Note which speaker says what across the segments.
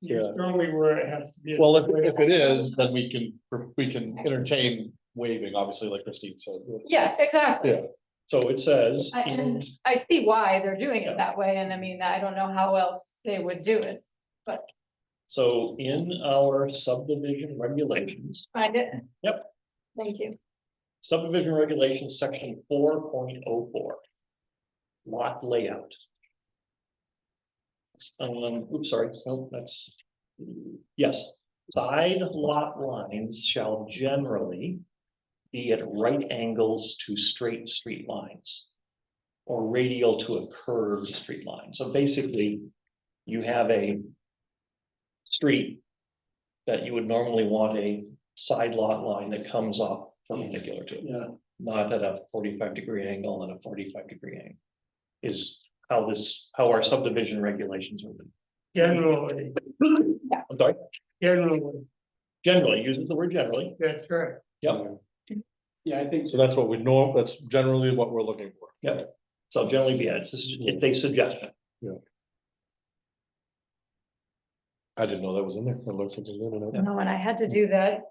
Speaker 1: Yeah.
Speaker 2: Strongly where it has to be.
Speaker 1: Well, if, if it is, then we can, we can entertain waiving, obviously, like Christine said.
Speaker 3: Yeah, exactly.
Speaker 1: Yeah. So it says,
Speaker 3: I-
Speaker 1: and
Speaker 3: and I see why they're doing
Speaker 1: Yeah.
Speaker 3: it that way, and I mean, I don't know how else they would do it,
Speaker 1: so in our subdivision regulations,
Speaker 3: find it.
Speaker 1: Yep.
Speaker 3: Thank you.
Speaker 1: subdivision regulations, section four point oh four. Lot layout. Um, oops, sorry, no, that's, yes, side lot lines shall generally. Be at right angles to straight street lines. Or radial to a curved street line, so basically, you have a. Street. That you would normally want a side lot line that comes off perpendicular to it
Speaker 2: Yeah,
Speaker 1: not at a forty-five degree angle and a forty-five degree angle. Is how this, how our subdivision regulations are, written.
Speaker 2: generally,
Speaker 1: I'm sorry,
Speaker 2: generally,
Speaker 1: generally, uses the word generally,
Speaker 2: that's right.
Speaker 1: yeah,
Speaker 4: Yeah, I think.
Speaker 5: So that's what we know, that's generally what we're looking for.
Speaker 1: so generally, yeah, it's, it's a suggestion.
Speaker 5: I didn't know that was in there. It looks like it's in
Speaker 3: No, and I had to do that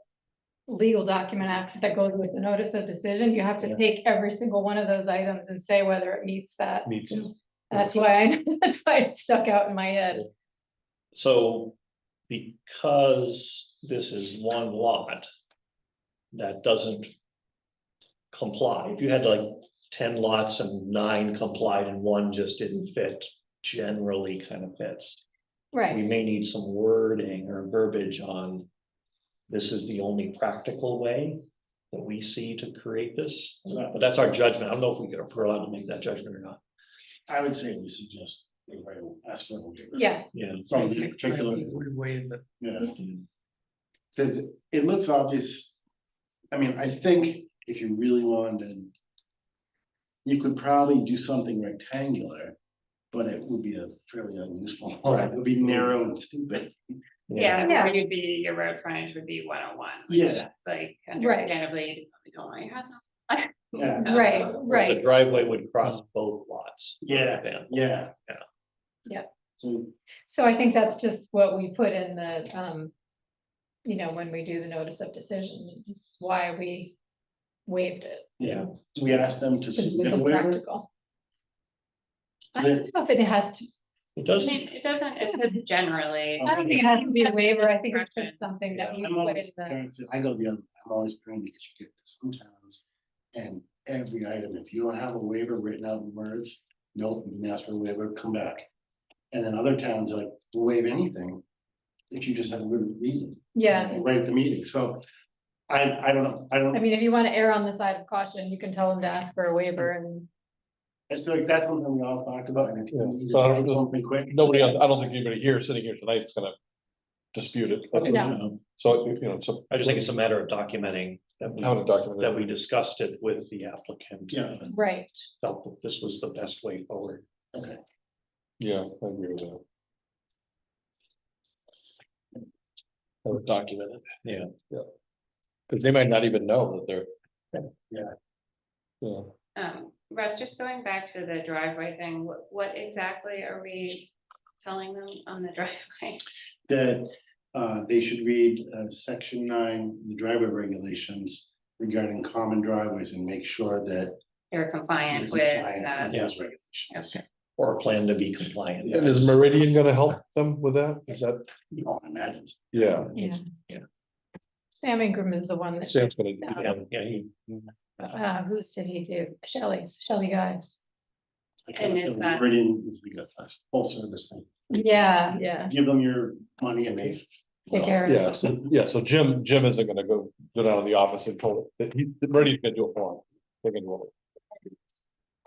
Speaker 3: legal document after that goes with the notice of decision. You have
Speaker 1: Yeah.
Speaker 3: to take every single one of those items and say whether it meets that.
Speaker 5: it meets.
Speaker 3: That's why, I that's why it stuck out in my head.
Speaker 1: So because this is one lot. That doesn't. Comply, if you had like ten lots and nine complied and one just didn't fit, generally kind of fits. we
Speaker 3: Right,
Speaker 1: may need some wording or verbiage on. This is the only practical way that we see to create this,
Speaker 4: Right.
Speaker 1: but that's our judgment. I don't know if we are allowed to make that judgment or not.
Speaker 4: I would say we suggest, everybody will ask for a waiver.
Speaker 3: yeah,
Speaker 1: Yeah.
Speaker 4: From the particular,
Speaker 2: Would waive it.
Speaker 4: yeah, says, it- it looks obvious. I mean, I think if you really wanted. You could probably do something rectangular, but it would be a fairly unuseful, one. it would be narrow and stupid.
Speaker 6: Yeah,
Speaker 3: Yeah.
Speaker 6: where you'd be, your road frontage would be one oh one.
Speaker 4: Yeah.
Speaker 6: Like, understandably, you don't want your house. on-
Speaker 4: Yeah.
Speaker 6: Uh,
Speaker 3: right,
Speaker 1: The
Speaker 3: right.
Speaker 1: driveway would cross both lots.
Speaker 4: Yeah,
Speaker 1: Yeah.
Speaker 4: yeah.
Speaker 1: Yeah.
Speaker 3: Yeah.
Speaker 4: So,
Speaker 3: So I think that's just what we put in the, um, you know, when we do the notice of decision, it's why we waived it.
Speaker 4: yeah, do we ask them to
Speaker 3: Because it
Speaker 4: submit
Speaker 3: was
Speaker 4: a waiver?
Speaker 3: impractical. I don't know if it has to,
Speaker 1: It
Speaker 6: I
Speaker 1: doesn't,
Speaker 6: mean, it doesn't, it says generally.
Speaker 4: Oh.
Speaker 3: I don't think it has to be a waiver, I think it's
Speaker 6: Discretion.
Speaker 3: just something that uh, we
Speaker 4: I'm
Speaker 3: put in
Speaker 4: always,
Speaker 3: the,
Speaker 4: paranoid, so I go the other, I'm always praying because you get to some towns. And every item, if you don't have a waiver written out in words, nope, you can ask for a waiver, come back. And then other towns are like "We'll waive anything. If you just have a good reason.
Speaker 3: yeah.
Speaker 4: And Right at the meeting, so I, I don't know, I
Speaker 3: I
Speaker 4: don't,
Speaker 3: mean, if you want to err on the side of caution, you can tell them to ask for a waiver and,
Speaker 4: it's like that's something we all talked about and I think
Speaker 5: Yeah,
Speaker 4: we need to
Speaker 5: so I don't
Speaker 4: write
Speaker 5: know.
Speaker 4: something quick.
Speaker 5: Nobody, else- I don't think anybody here, sitting here tonight is gonna dispute it.
Speaker 4: Okay.
Speaker 3: No.
Speaker 5: So, you know, so
Speaker 1: I just think it's a matter of documenting that we,
Speaker 5: how to document
Speaker 1: that
Speaker 5: it.
Speaker 1: we discussed it with the applicant.
Speaker 4: Yeah.
Speaker 1: and
Speaker 3: right,
Speaker 1: Felt that this was the best way forward.
Speaker 4: Okay,
Speaker 5: Yeah, I agree with that. I would document it.
Speaker 1: Yeah.
Speaker 5: Yeah. Cause they might not even know that they're.
Speaker 4: Yeah.
Speaker 5: Yeah,
Speaker 6: Um, Russ, just going back to the driveway thing, what, what exactly are we telling them on the driveway?
Speaker 4: that, uh, they should read, uh, section nine, the driveway regulations. Regarding common driveways and make sure that
Speaker 6: They're compliant
Speaker 4: You're
Speaker 6: with uh,
Speaker 4: compliant
Speaker 6: that.
Speaker 4: with those regulations.
Speaker 6: Okay.
Speaker 1: Or a plan to be compliant.
Speaker 5: and is Meridian gonna help them with that? Is that,
Speaker 4: You all imagine.
Speaker 5: yeah,
Speaker 3: yeah.
Speaker 1: Yeah.
Speaker 3: Sam Ingram is the one that,
Speaker 5: Sam's gonna.
Speaker 1: Yeah, yeah, he-
Speaker 3: uh, whose did he do? Shelley's, Shelley Guys.
Speaker 4: I kinda
Speaker 6: And is
Speaker 4: feel
Speaker 6: that-
Speaker 4: Meridian is the good, that's full service thing.
Speaker 3: Yeah, yeah,
Speaker 4: Give them your money and they.
Speaker 3: take care of
Speaker 5: Yeah,
Speaker 3: it.
Speaker 5: so, yeah, so Jim, Jim isn't gonna go, go down to the office and pull it, he, Meridian's gonna do it for him. They can do it.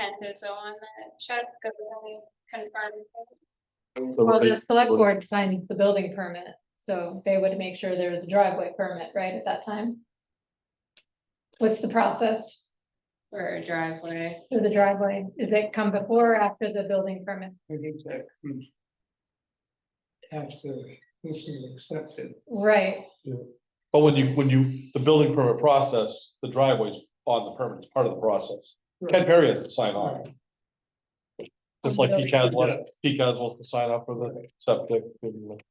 Speaker 6: And so on that check, goes on confirm.
Speaker 5: So
Speaker 3: Well, the
Speaker 5: they-
Speaker 3: select board signs the building permit, so they would make sure there's a driveway permit, right, at that time? What's the process
Speaker 6: for a driveway.
Speaker 3: for the driveway? Is it come before or after the building permit?
Speaker 2: I think that comes After this is accepted.
Speaker 3: Right,
Speaker 5: But when you, when you, the building permit process, the driveway's on the permit, it's part of the process. Ken Perry has to sign off. Just like Pete Caswell, Pete Caswell has to sign off for the septic. and